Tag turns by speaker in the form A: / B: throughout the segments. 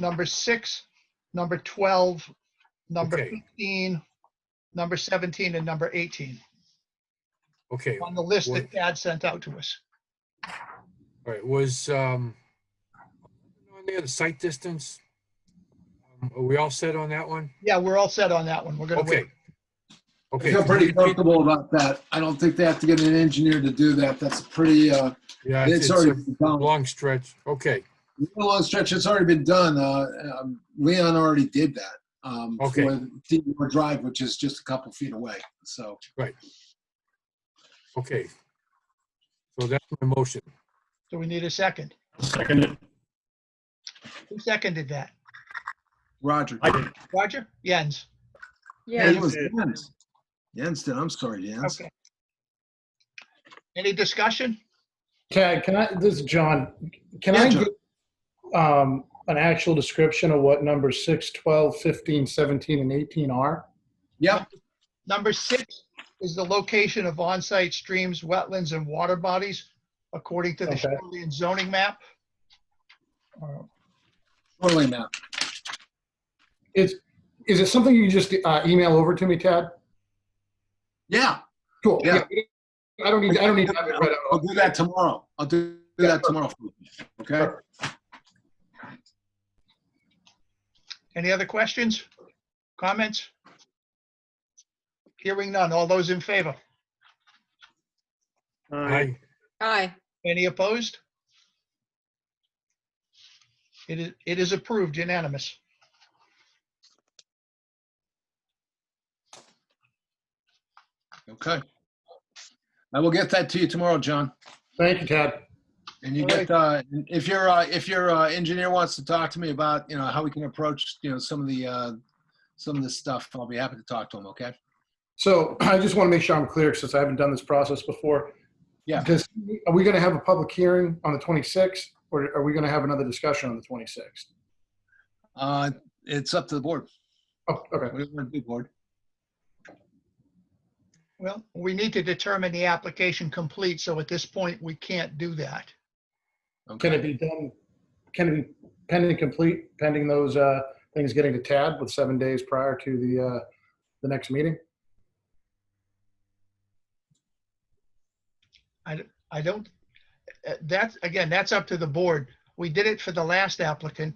A: number six, number 12, number
B: Okay.
A: 15, number 17, and number 18
B: Okay, all
A: on the list
B: Would-
A: that Thad sent out to us.
B: right, was, um, on there, the site distance? Um, Are we all set on that one?
A: Yeah, we're all set on that one. We're gonna
B: Okay.
A: wait.
C: I
B: Okay.
C: feel pretty comfortable about that. I don't think they have to get an engineer to do that. That's a pretty, uh,
B: Yeah, it's
C: it's
B: it's
C: already
B: a
C: been done.
B: long stretch. Okay,
C: It's been a long stretch. It's already been done. Uh, um, Leon already did that. Um,
B: Okay.
C: For Seymour Drive, which is just a couple feet away. So
B: okay. So that's my motion.
A: So we need a second.
D: Second it.
A: Who seconded that?
C: Roger.
D: I did.
A: Roger? Jens?
C: Yeah,
E: Yeah,
C: it was Jens. Jens did. I'm sorry, Jens.
A: Okay. Any discussion?
E: Tad, can I, this is John, can
C: Yeah,
E: I
C: John.
E: get um, an actual description of what numbers 6, 12, 15, 17, and 18 are?
C: Yep.
A: Number six is the location of on-site streams, wetlands, and water bodies according to the
E: Okay.
A: shoreline zoning map. Uh,
C: Totally map.
E: Is, is it something you can just uh, email over to me, Tad?
C: Yeah.
E: Cool.
C: Yeah.
E: I don't need, I don't need to have it right
C: I'll
E: out.
C: do that tomorrow. I'll do do that tomorrow. for you. Okay.
A: Any other questions? Comments? Hearing none. All those in favor?
B: Aye.
F: Aye.
A: Any opposed? It is, it is approved unanimous.
C: Okay. I will get that to you tomorrow, John.
E: Thank you, Tad.
C: And you
A: All
C: get, uh, if your, uh, if your, uh, engineer wants to talk to me about, you know, how we can approach, you know, some of the, uh, some of this stuff, I'll be happy to talk to him, okay?
E: So I just want to make sure I'm clear since I haven't done this process before.
C: Yeah.
E: Does, are we going to have a public hearing on the 26th or are we going to have another discussion on the 26th?
C: Uh, it's up to the board.
E: Oh, okay.
C: What do you want to do, board?
A: Well, we need to determine the application complete, so at this point, we can't do that.
C: Okay.
E: Can it be done, can it be pending complete, pending those uh, things getting to Tad with seven days prior to the, uh, the next meeting?
A: I don't, uh, that's, again, that's up to the board. We did it for the last applicant.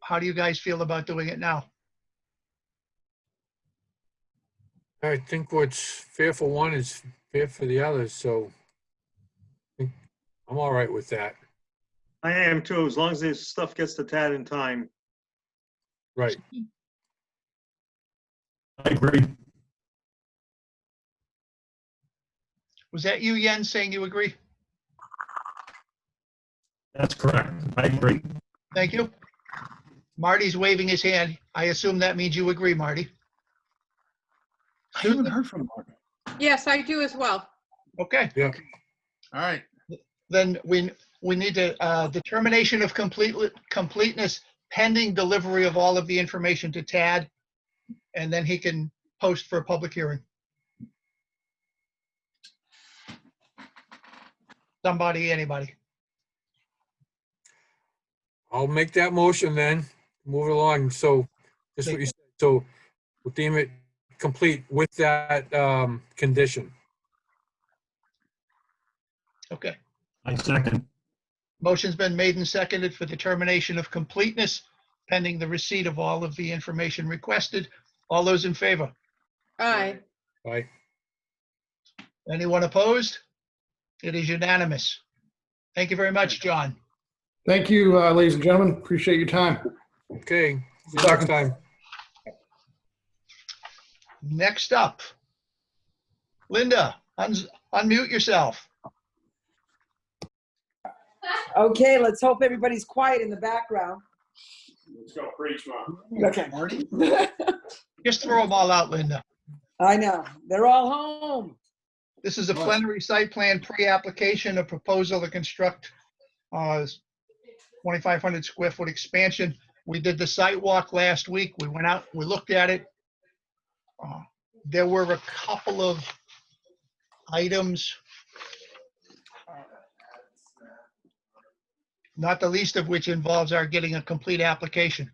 A: How do you guys feel about doing it now?
B: I think what's fair for one is fair for the others, so I think I'm all right with that.
D: I am too, as long as this stuff gets to Tad in time.
B: Right.
D: I agree.
A: Was that you, Jens, saying you agree?
D: That's correct. I agree.
A: Thank you. Marty's waving his hand. I assume that means you agree, Marty.
C: I haven't heard from Mark.
F: Yes, I do as well.
A: Okay,
C: All right.
A: then we, we need to, uh, determination of complete, completeness pending delivery of all of the information to Tad. And then he can post for a public hearing. Somebody, anybody.
B: I'll make that motion then, move it along. So, just what you said, so we'll deem it complete with that um, condition.
A: Okay.
D: I second.
A: Motion's been made and seconded for determination of completeness pending the receipt of all of the information requested. All those in favor?
F: Aye.
B: Right?
A: Anyone opposed? It is unanimous. Thank you very much, John.
E: Thank you, uh, ladies and gentlemen. Appreciate your time.
B: Okay, see you next time.
A: Next up, Linda, uns- unmute yourself.
G: Okay, let's hope everybody's quiet in the background. Let's go,
C: Marty?
G: preach, Okay.
A: Just throw them all out, Linda.
G: I know, they're all home.
A: This is a plenary site plan pre-application, a proposal to construct uh, 2,500 square foot expansion. We did the site walk last week. We went out, we looked at it. Uh, There were a couple of items. Not the least of which involves our getting a complete application.